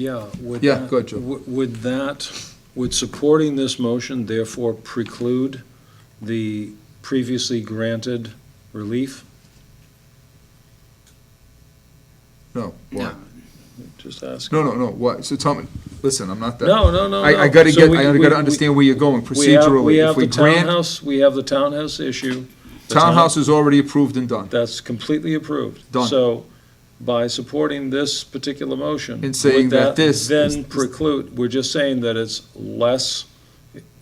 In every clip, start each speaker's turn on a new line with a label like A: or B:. A: Yeah, would.
B: Yeah,
A: that-
B: go ahead, Joe.
A: w- Would that, would supporting this motion therefore preclude the previously granted relief?
B: No. Why?
A: Just asking.
B: No, no, no, why, so tell me, listen, I'm not that.
A: No, no, no.
B: I, I
A: no.
B: gotta
A: So
B: get,
A: we-
B: I
A: we-
B: gotta
A: we-
B: understand where you're going
A: we have- we
B: procedurally. If
A: have
B: we
A: the
B: grant,
A: townhouse- We have the townhouse issue. The town-
B: townhouse is already approved and done.
A: That's completely approved.
B: Done.
A: So by supporting this particular motion.
B: And
A: would
B: saying that this is-
A: Then preclude, we're just saying that it's less,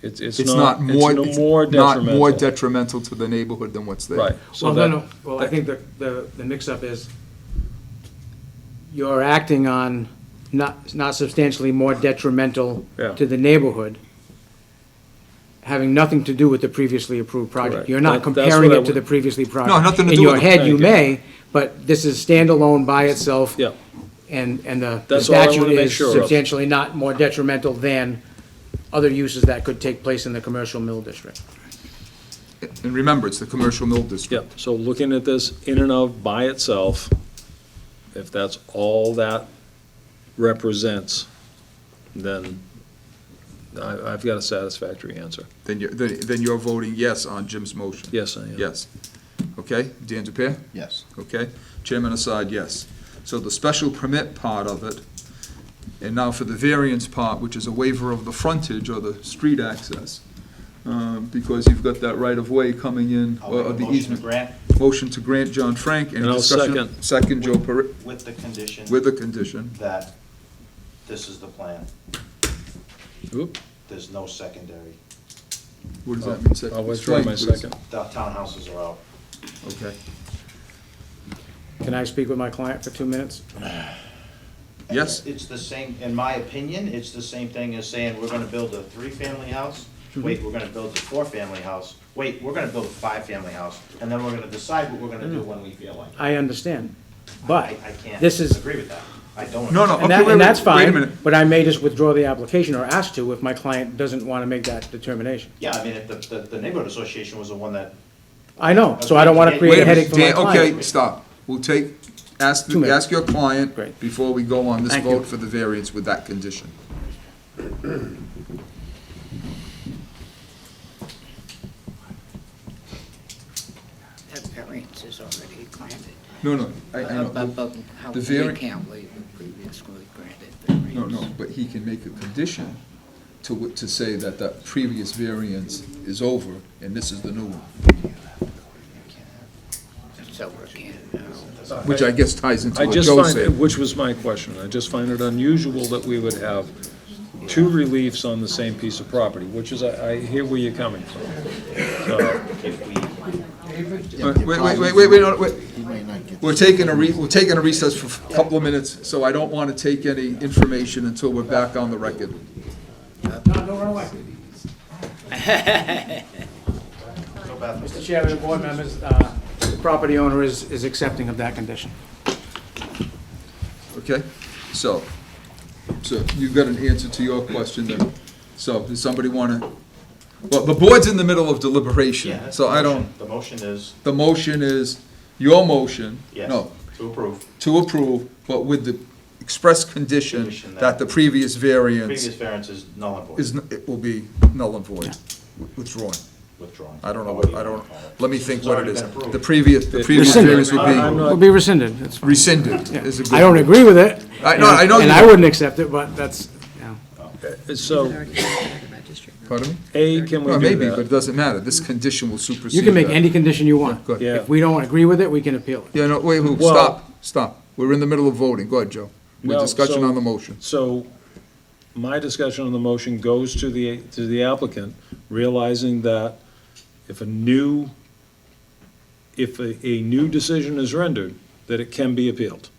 A: it's, it's
B: It's not
A: not,
B: more,
A: it's
B: it's
A: no more
B: not more
A: detrimental.
B: detrimental to the neighborhood than what's there.
A: Right. So
C: Well, Oh, no,
A: that-
C: no, well, I think the, the, the mix-up is you're acting on not, not substantially more detrimental
A: Yeah.
C: to the neighborhood, having nothing to do with the previously approved
A: Correct.
C: project. You're not
A: That- that's
C: comparing
A: what I
C: it to the
A: would-
C: previously project.
B: nothing to do with
C: In
B: it.
C: your head, you
A: Thank you.
C: may, but this is standalone by itself.
A: Yeah.
C: And, and the the
A: That's all I wanna
C: statute
A: make
C: is
A: sure of.
C: substantially not more detrimental than other uses that could take place in the commercial mill district.
B: And remember, it's the commercial mill district.
A: Yeah, so looking at this in and of by itself, if that's all that represents, then I, I've got a satisfactory answer.
B: Then you're, then then you're voting yes on Jim's motion.
A: Yes, I am.
B: Yes. Okay, Dan DePere?
D: Yes.
B: Okay, chairman aside, yes. So the special permit part of it, and now for the variance part, which is a waiver of the frontage or the street access, um, because you've got that right-of-way coming in,
D: I'll
B: or
D: make
B: or the
D: a motion to
B: easement.
D: grant
B: Motion to grant John Frank, any
A: And I'll
B: discussion?
A: second.
B: Second, Joe Perri,
D: with the condition
B: with a condition.
D: that this is the plan.
A: Oop,
D: There's no secondary.
B: What does that mean? sec-
A: I'll withdraw my
B: explain, please.
A: second.
D: The townhouses are out.
B: Okay.
C: Can I speak with my client for two minutes?
D: And
B: Yes.
D: It's the same, in my opinion, it's the same thing as saying, we're gonna build a three-family house. Wait, we're gonna build a four-family house. Wait, we're gonna build a five-family house, and then we're gonna decide what we're gonna do when we feel like. it.
C: I understand,
D: I,
C: but
D: I can't
C: this is,
D: agree with that. I don't.
B: No, no,
C: and
B: Okay,
C: that,
B: wait,
C: and that's
B: wait, wait a
C: fine,
B: minute.
C: but I may just withdraw the application or ask to if my client doesn't want to make that determination.
D: Yeah, I mean, if the, the, the neighborhood association was the one that,
C: I know, so I don't want to
D: Wait a
C: create
B: Wait
C: a
B: a
C: headache
B: minute,
C: for my
B: Dan, okay,
C: client.
B: stop. We'll take, ask,
C: Two minutes.
B: ask your client
C: Great.
B: before we go on this
C: Thank you.
B: vote for the variance with that condition.
E: That variance is already granted.
B: No, no, I,
D: Uh,
B: I know.
E: But- but How
B: The
E: we
B: vari-
E: can't leave the previously granted variance.
B: No, no, but he can make a condition to, w- to say that that previous variance is over and this is the new one,
E: So we can't, uh,
B: which I guess ties into
A: I
B: what
A: just
B: Joe
A: find, it-
B: said.
A: which was my question, I just find it unusual that we would have two reliefs on the same piece of property, which is, I, I hear where you're coming from. So,
D: if we,
B: Wait, wait, wait, wait, wait, no, wait. We're taking a re, we're taking a recess for a couple of minutes, so I don't want to take any information until we're back on the record.
D: so Beth,
C: Mr. Chairman, and board members, uh, the property owner is, is accepting of that condition.
B: Okay, so, so you've got an answer to your question then. So, does somebody want to, well, the board's in the middle of
D: yeah.
B: deliberation,
D: that's
B: so
D: the
B: I
D: motion.
B: don't,
D: The motion is,
B: the motion is your motion.
D: yes,
B: No,
D: to approve.
B: to approve, but with the express condition
D: Condition that-
B: that the previous
D: Previous
B: variance
D: variance is null and void,
B: is, n- it will be null and void, withdrawn.
D: withdrawn.
B: I don't know,
D: Or
B: what
D: you
B: I don't,
D: wanna call it.
B: let me think what it
D: It's
B: is.
D: already been approved.
B: The previous, the previous
C: Rescinded.
B: variance would
A: I'm
B: be
A: not-
C: Will be rescinded, that's fine.
B: rescinded,
C: Yeah.
B: is a good.
C: I don't agree with it.
B: I- no, I know
C: And
B: you
C: I
B: don't.
C: wouldn't accept it, but that's, yeah.
A: so,
B: Pardon me?
A: A, can we
B: Well,
A: do
B: maybe, but it
A: that?
B: doesn't matter, this condition will supersede
C: You can make
B: that.
C: any condition you want.
B: uh, go ahead.
A: Yeah.
C: If we don't agree with it, we can appeal it.
B: Yeah, no, wait, wait,
A: Well-
B: stop, stop. We're in the middle of voting. Go ahead, Joe. We're
A: No,
B: discussion
A: so-
B: on the motion.
A: So, my discussion on the motion goes to the, to the applicant, realizing that if a new, if a, a new decision is rendered, that it can be appealed.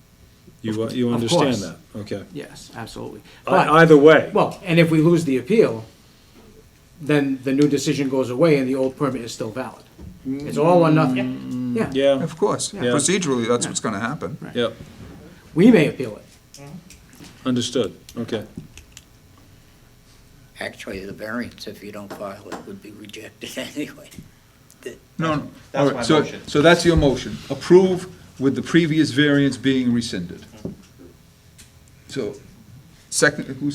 A: You, uh, you
C: Of
A: understand
C: course.
A: that, okay?
C: Yes, absolutely. But-
A: I- Either way,
C: Well, and if we lose the appeal, then the new decision goes away and the old permit is still valid. It's all or nothing. Yeah,
A: yeah,
B: Of course,
C: Yeah.
B: procedurally, that's what's gonna happen.
A: yeah,
C: we may appeal it.
A: understood, okay.
E: actually, the variance, if you don't file it, would be rejected anyway.
B: No, no.
D: That's
B: All right,
D: my
B: so-
D: motion.
B: So that's your motion.
D: Mm-hmm.
B: Approve with the previous variance being rescinded. So, Second, who